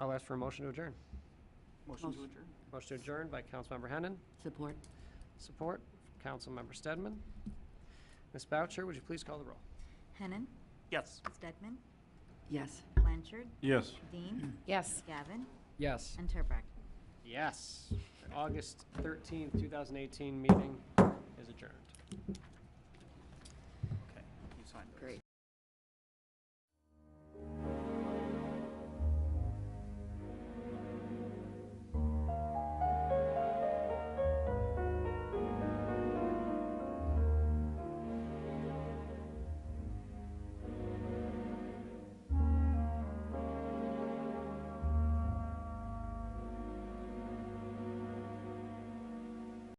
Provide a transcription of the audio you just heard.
I'll ask for a motion to adjourn. Motion to adjourn. Motion to adjourn by Councilmember Hennan, Support. support from Councilmember Stedman. Ms. Boucher, would you please call the roll? Hennan, Yes. Stedman, Yes. Blanchard, Yes. Dean, Yes. Gavin, Yes. and Turbrack. Yes. August 13th, 2018 meeting is adjourned.